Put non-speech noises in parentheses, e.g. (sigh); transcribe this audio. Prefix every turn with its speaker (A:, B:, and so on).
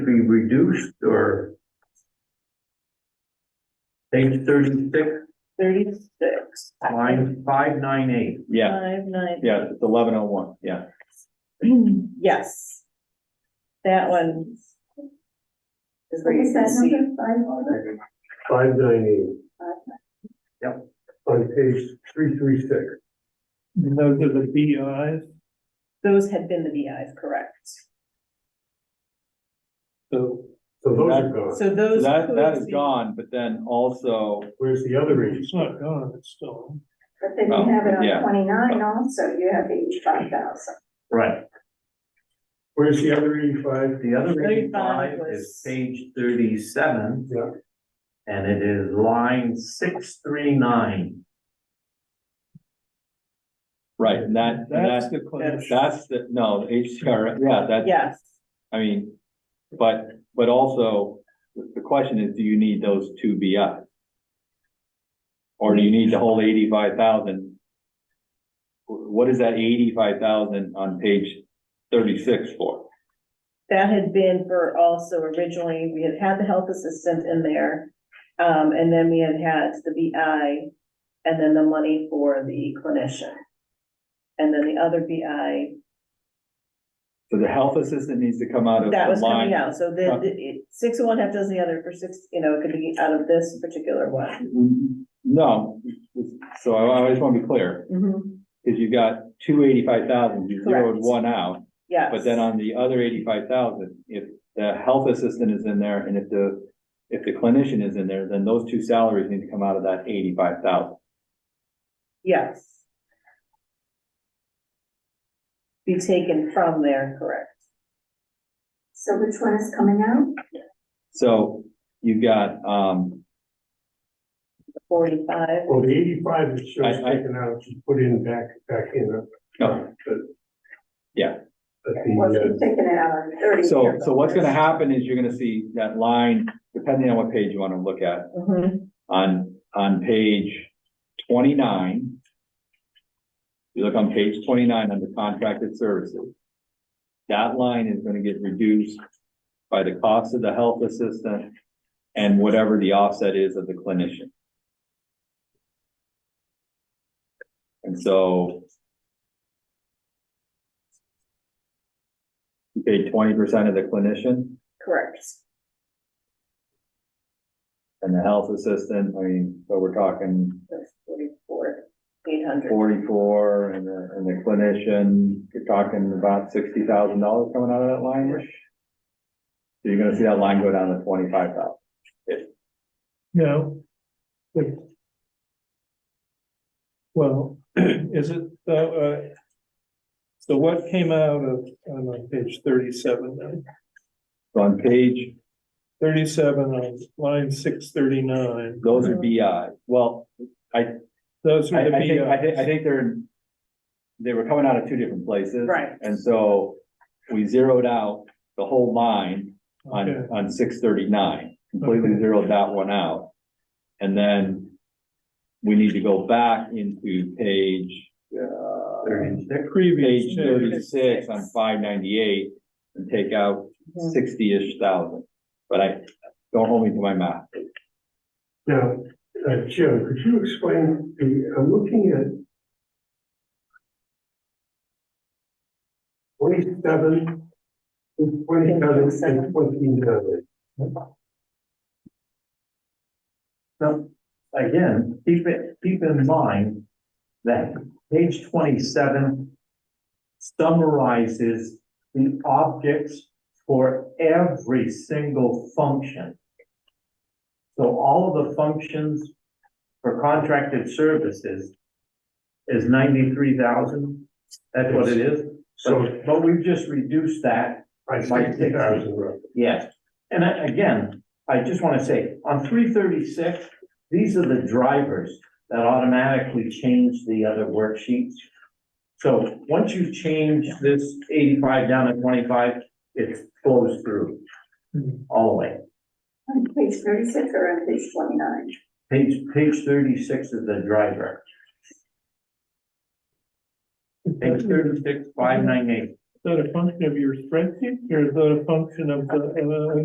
A: be reduced or? Page thirty-six,
B: Thirty-six.
A: line five nine eight.
C: Yeah,
B: Five nine.
C: yeah, it's eleven oh one, yeah.
B: (clears throat) Yes. That one. Is where you
D: Is
B: can
D: that
B: see.
D: number five order?
E: Five nine eight.
A: Yep.
E: On page three three six.
F: Those are the BIs,
B: Those had been the VIs, correct?
F: so
E: So those are gone.
B: So
C: So
B: those.
C: That, that is
B: could be-
C: gone, but then also,
E: Where's the other age?
F: it's not gone, it's still.
D: But then you
C: Oh,
D: have it
C: yeah. Oh.
D: on twenty-nine also, you have eighty-five thousand.
A: Right.
E: Where's the other eighty-five?
A: The other
B: 35
A: eighty-five is
B: was-
A: page thirty-seven.
E: Yeah.
A: And it is line six three nine.
C: right, and that, and
F: That's
C: that,
F: the clash.
C: that's the, no, HCR, yeah, that,
B: Yes,
C: I mean, but, but also, the the question is, do you need those two BIs? Or do you need the whole eighty-five thousand? What is that eighty-five thousand on page thirty-six for?
B: that had been for also originally, we had had the health assistant in there. Um, and then we had had the VI and then the money for the clinician. And then the other VI
C: So the health assistant needs to come out of
B: That
C: the
B: was coming
C: line,
B: out, so the, the, it- six of one, half dozen the other for six, you know, it could be out of this particular one.
C: Mm-hmm. no, so I I just wanna be clear. Cause you got two eighty-five thousand, you zeroed
B: Correct.
C: one out,
B: Yes.
C: but then on the other eighty-five thousand, if the health assistant is in there and if the. If the clinician is in there, then those two salaries need to come out of that eighty-five thousand.
B: Yes. Be taken from there, correct?
D: So which one is coming out?
C: So you got, um,
B: Forty-five,
E: Well, the eighty-five is just
C: I- Oh. I-
E: taken out, just put in back, back in.
C: no,
E: But
D: Well,
E: the,
F: uh,
E: uh.
D: you've taken it out on thirty.
C: so,
D: here,
C: so
D: but
C: what's gonna
D: there's-
C: happen is you're gonna see that line, depending on what page you wanna look at,
B: mhm,
C: on, on page twenty-nine. You look on page twenty-nine under contracted services. That line is gonna get reduced by the cost of the health assistant and whatever the offset is of the clinician. And so you pay twenty percent of the clinician
B: correct.
C: and the health assistant, I mean, so we're talking
B: That's forty-four, eight hundred,
C: forty-four and the, and the clinician, you're talking about sixty thousand dollars coming out of that line-ish. So you're gonna see that line go down to twenty-five thousand.
F: No. But. Well, (clears throat) is it, though, uh, so what came out of, I'm on page thirty-seven now,
C: So on page,
F: thirty-seven on line six thirty-nine,
C: those are BI, well,
F: those
C: I,
F: are
C: I
F: the
C: think, I think, I
F: BIs.
C: think they're, they were coming out of two different places.
B: Right.
C: And so we zeroed out the whole line on,
F: Okay.
C: on six thirty-nine, completely
F: Okay.
C: zeroed that one out. And then we need to go back into page, uh,
A: Thirty-six,
C: page
F: Previous. page.
C: thirty-six on five ninety-eight and take out
B: Mhm.
C: sixty-ish thousand. But I, don't hold me to my math.
E: now, uh, Jim, could you explain, the, I'm looking at twenty-seven, twenty-seven and twenty-nine.
A: now, again, keep it, keep in mind that page twenty-seven summarizes the objects for every single function. So all of the functions for contracted services is ninety-three thousand, that's what it is.
E: So
A: But, but we've just reduced that
E: by sixty thousand roughly.
A: Yes, and I- again, I just want to say, on three thirty-six, these are the drivers that automatically change the other worksheets. So once you change this eighty-five down to twenty-five, it flows through all the way.
D: On page thirty-six or on page twenty-nine?
A: Page, page thirty-six is the driver, page thirty-six, five nine eight.
F: that a function of your spreadsheet, or is that a function of the, uh,